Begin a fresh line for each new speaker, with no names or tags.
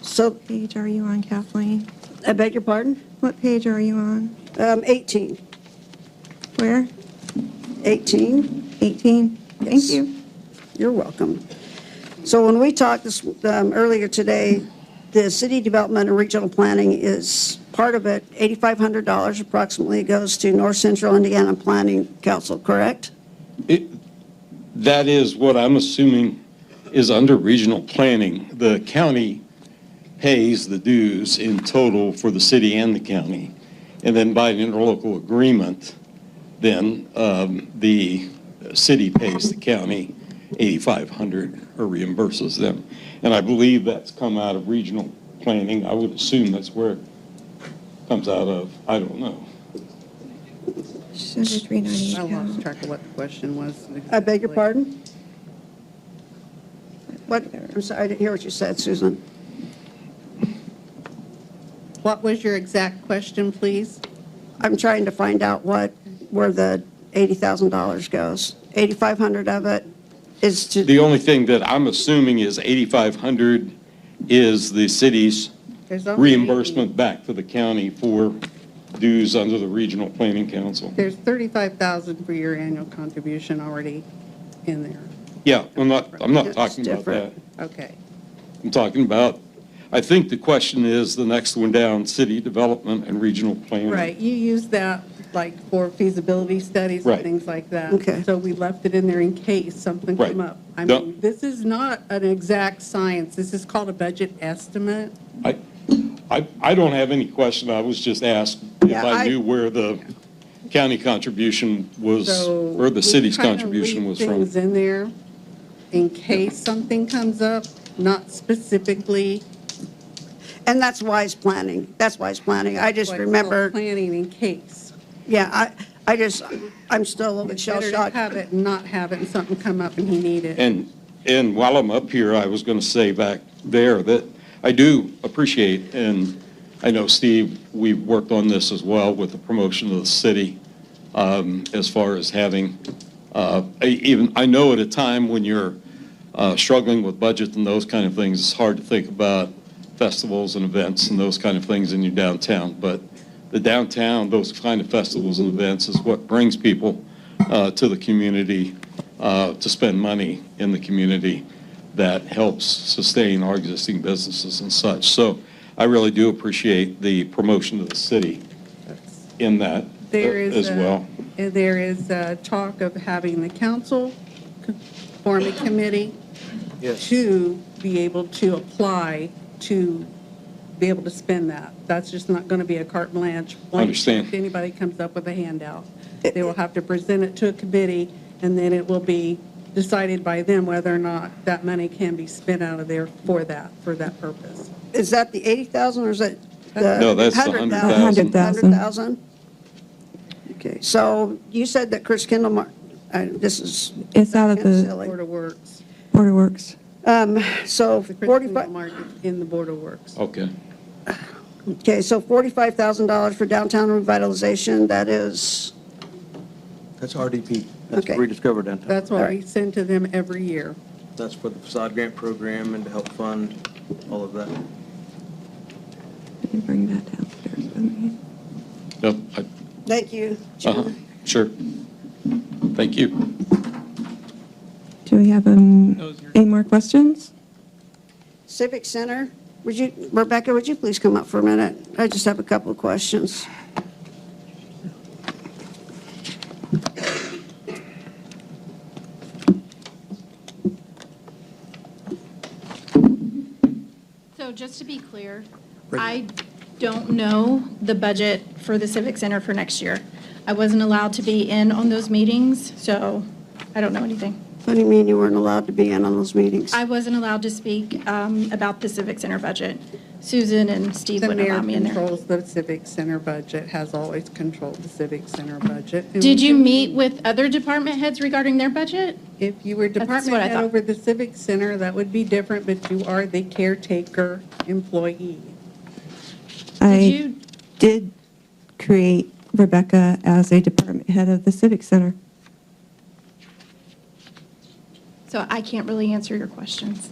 So,
Page are you on, Kathleen?
I beg your pardon?
What page are you on?
Um, 18,
Where?
18.
18? Thank
Yes.
you.
You're welcome. So when we talked this, um, earlier today, the city development and regional planning is, part of it, $8,500 approximately goes to North Central Indiana Planning Council, correct?
It, that is what I'm assuming is under regional planning. The county pays the dues in total for the city and the county. And then by an interlocal agreement, then um, the city pays the county 8,500 or reimburses them. And I believe that's come out of regional planning. I would assume that's where it comes out of. I don't know.
She's under
I
390.
lost track of what the question was.
I beg your
exactly.
pardon? What, I'm sorry, I didn't hear what you said, Susan.
What was your exact question, please?
I'm trying to find out what, where the $80,000 goes. 8,500 of it is to,
The only thing that I'm assuming is 8,500 is the city's
There's only-
reimbursement back to the county for dues under the Regional Planning Council.
There's 35,000 for your annual contribution already in there.
Yeah, I'm not, I'm not
It's
talking about that.
different.
Okay.
I'm talking about, I think the question is, the next one down, city development and regional planning.
Right, you use that like for feasibility studies and
Right.
things like that.
Okay.
So we left it in there in case something
Right.
come up. I
No.
mean, this is not an exact science. This is called a budget estimate.
I, I, I don't have any question, I was just asked if
Yeah,
I
I-
knew where the county contribution was,
So.
where the
we
city's
kinda
contribution
leave
was from.
Things in there in case something comes up, not specifically.
and that's wise planning. That's wise planning. I just
like, called
remember,
Planning in case.
yeah, I, I just, I'm still a little bit shell
Better to
shocked.
have it and not have it and something come up and he need it.
And, and while I'm up here, I was going to say back there that I do appreciate, and I know, Steve, we've worked on this as well with the promotion of the city um, as far as having, uh, I even, I know at a time when you're uh, struggling with budget and those kind of things, it's hard to think about festivals and events and those kind of things in your downtown. But the downtown, those kind of festivals and events is what brings people uh, to the community, uh, to spend money in the community that helps sustain our existing businesses and such. So I really do appreciate the promotion of the city in that uh,
There is
as
a-
well.
uh, There is uh, talk of having the council co- form a committee to be able to apply to be able to spend that. That's just not going to be a carte blanche. blank
Understand.
check to Anybody comes up with a handout. They will have to present it to a committee, and then it will be decided by them whether or not that money can be spent out of there for that, for that purpose.
Is that the 80,000 or is it the?
No, that's the
100,000?
100,000.
100,000? Okay, so you said that Chris Kendall, Mar- I- this is.
It's out of the-
silly.
Board of Works,
Board of Works.
Um, So
the Christian
45.
Market in the Board of Works.
Okay.
Okay, so $45,000 for downtown revitalization, that is,
That's RDP. That's
Okay.
rediscovered downtown.
That's what we
Alright.
send to them every year.
That's for the facade grant program and to help fund all of that.
I can bring that downstairs with me.
Yep, I-
thank you.
uh-huh, Sure. Thank you.
Do we have um, any more questions?
Civic Center, would you, Rebecca, would you please come up for a minute? I just have a couple of questions.
So just to be clear, I don't know the budget for the Civic Center for next year. I wasn't allowed to be in on those meetings, so I don't know anything.
What do you mean you weren't allowed to be in on those meetings?
I wasn't allowed to speak um, about the Civic Center budget. Susan and Steve
The
wouldn't
mayor
allow me in there.
controls the civic center budget, has always controlled the civic center budget. And
Did you meet with other department heads regarding their budget?
If you were department
what I
head
thought.
over the civic center, that would be different, but you are the caretaker employee.
Did
I
you?
did create Rebecca as a department head of the Civic Center.
So I can't really answer your questions.